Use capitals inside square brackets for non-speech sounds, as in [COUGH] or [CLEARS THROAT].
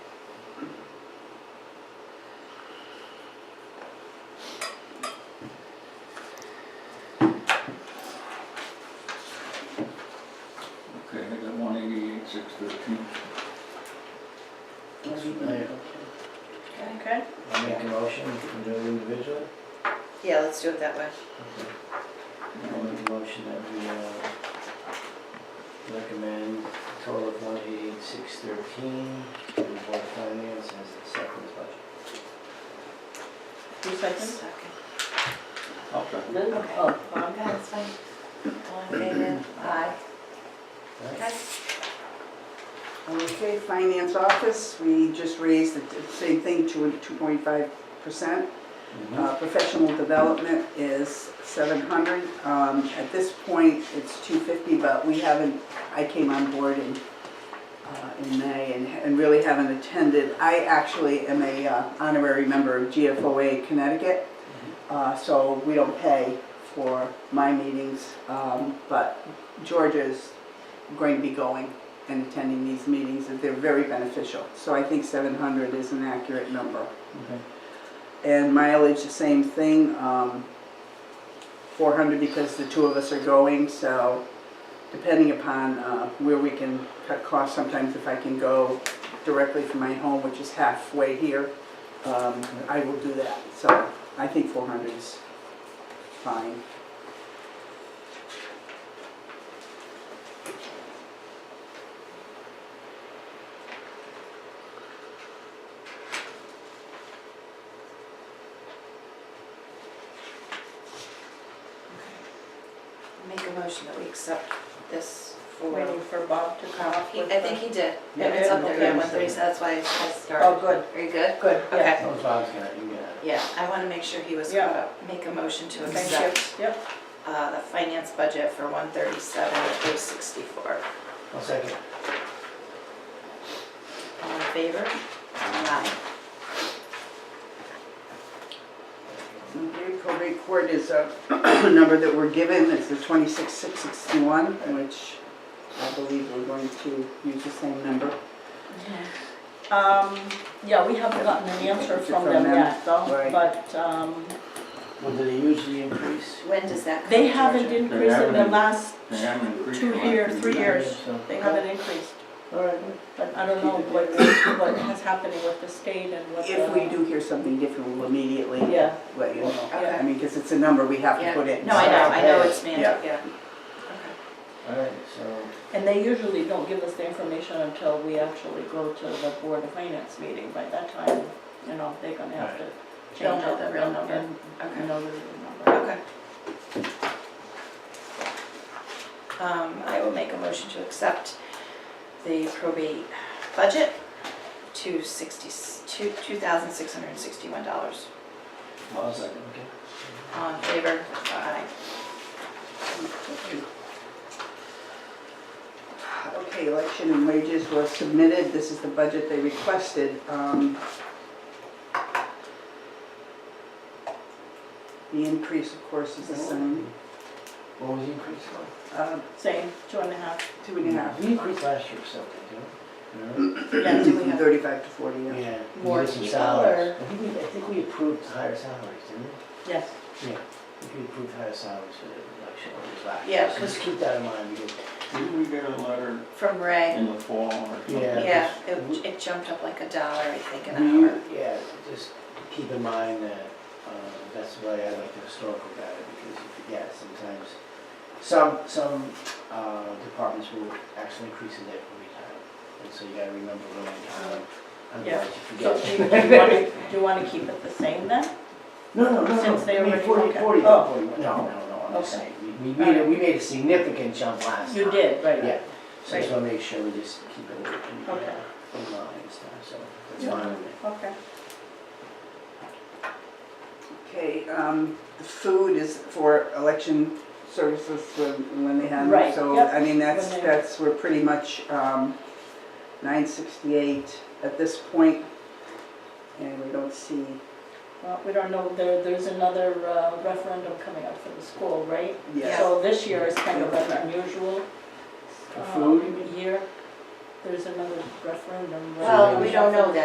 I Okay. I'll make a motion, we can do it individually. Yeah, let's do it that way. Okay. I'll make a motion that we uh, recommend a total of one eighty-eight, six thirteen to the Board of Finance as a separate budget. Two seconds? Okay. Okay. Bob? Okay, that's fine. All in favor? Aye. Right? Okay, finance office, we just raised the same thing, two, two point five percent. Mhm. Uh, Professional development is 700. Um, At this point, it's 250, but we haven't, I came on board in, uh, in May and and really haven't attended. I actually am a uh, honorary member of GFOA Connecticut, uh, so we don't pay for my meetings. um, But Georgia's going to be going and attending these meetings, and they're very beneficial. So I think 700 is an accurate number. Okay. And mileage, the same thing, um, four hundred because the two of us are going, so depending upon, uh, where we can cut costs, sometimes if I can go directly from my home, which is halfway here, um, I will do that, so I think four hundred is fine. Make a motion that we accept this for, Uh, Waiting for Bob to come up He- with I think he did. Yeah, It's up there, okay. yeah, one thirty, so that's why I started. Oh, good. Are you good? the- Good, yeah. Okay. That was Bob's guy, you got it. Yeah, I want to make sure he was Yeah. caught up. Make a motion to Thank accept you. Yep. uh, the finance budget for one thirty-seven, three sixty-four. I'll second. All in favor? Aye. Okay, probate court is a [CLEARS THROAT] number that we're given, it's the twenty-six, six sixty-one, which I believe we're going to use the same number. Um, yeah, we haven't gotten an answer from them yet though, Right. but, um, Well, did they usually increase? When does that come? they haven't Georgia? increased in the last They haven't increased two a lot. years, three years. So- They haven't increased, All right. but I don't know what, what is happening with the state and what the. If we do hear something different, we'll immediately Yeah. let you know. Okay. I mean, because it's a number we have to Yeah. put in. No, I know, I know it's Yeah. mandated, yeah. All right, so, And they usually don't give us the information until we actually go to the Board of Finance meeting. By that time, you know, they're gonna have to They'll change know out the the real real number. number. Okay. You know the real number. Okay. Um, I will make a motion to accept the probate budget to sixty, two, two thousand six hundred and sixty-one dollars. I'll second, okay. All in favor? Aye. Okay, election and wages was submitted, this is the budget they requested. Um, The increase, of course, is the same, What was the increase for? uh, Same, two and a half. two and a half. We increased last year or something, didn't Yeah, do we have- Thirty-five to forty, we? No? yeah. Yeah. we More did some people, salaries. or- I think we, I think we approved higher salaries, didn't we? Yes. I think we approved higher salaries for the election orders last year. Yeah, So 'cause- Just keep that in mind, because, Didn't we get a letter From Ray, in the fall or something? Yeah. yeah, it, it jumped up like a dollar, I think, an hour. we- yeah, just keep in mind that, uh, that's why I like the historical data, because you forget sometimes. Some, some uh, departments will actually increase it every time, and so you gotta remember when in time, Yeah. otherwise you forget. So do you wanna, do you wanna keep it the same then? No, no, no, no. Since they I mean, already- Forty, okay. forty, Oh. forty, no, no, no, I'm just Okay. saying, we, we made, a- we made a significant jump last time. You did, right. Yeah, so I just wanna make sure we just keep it in, in uh, Okay. in line and stuff, so that's Yeah. fine with me. Okay. Okay, um, the food is for election services when, when they have Right, them, so, yep. I mean, that's, When they- that's, we're pretty much, um, nine sixty-eight at this point, and we don't see, Well, we don't know, there, there's another uh, referendum coming up for the school, right? yes. So this year is kind of an unusual. uh, For food, um, Year. There's another referendum. right? Well, we don't know that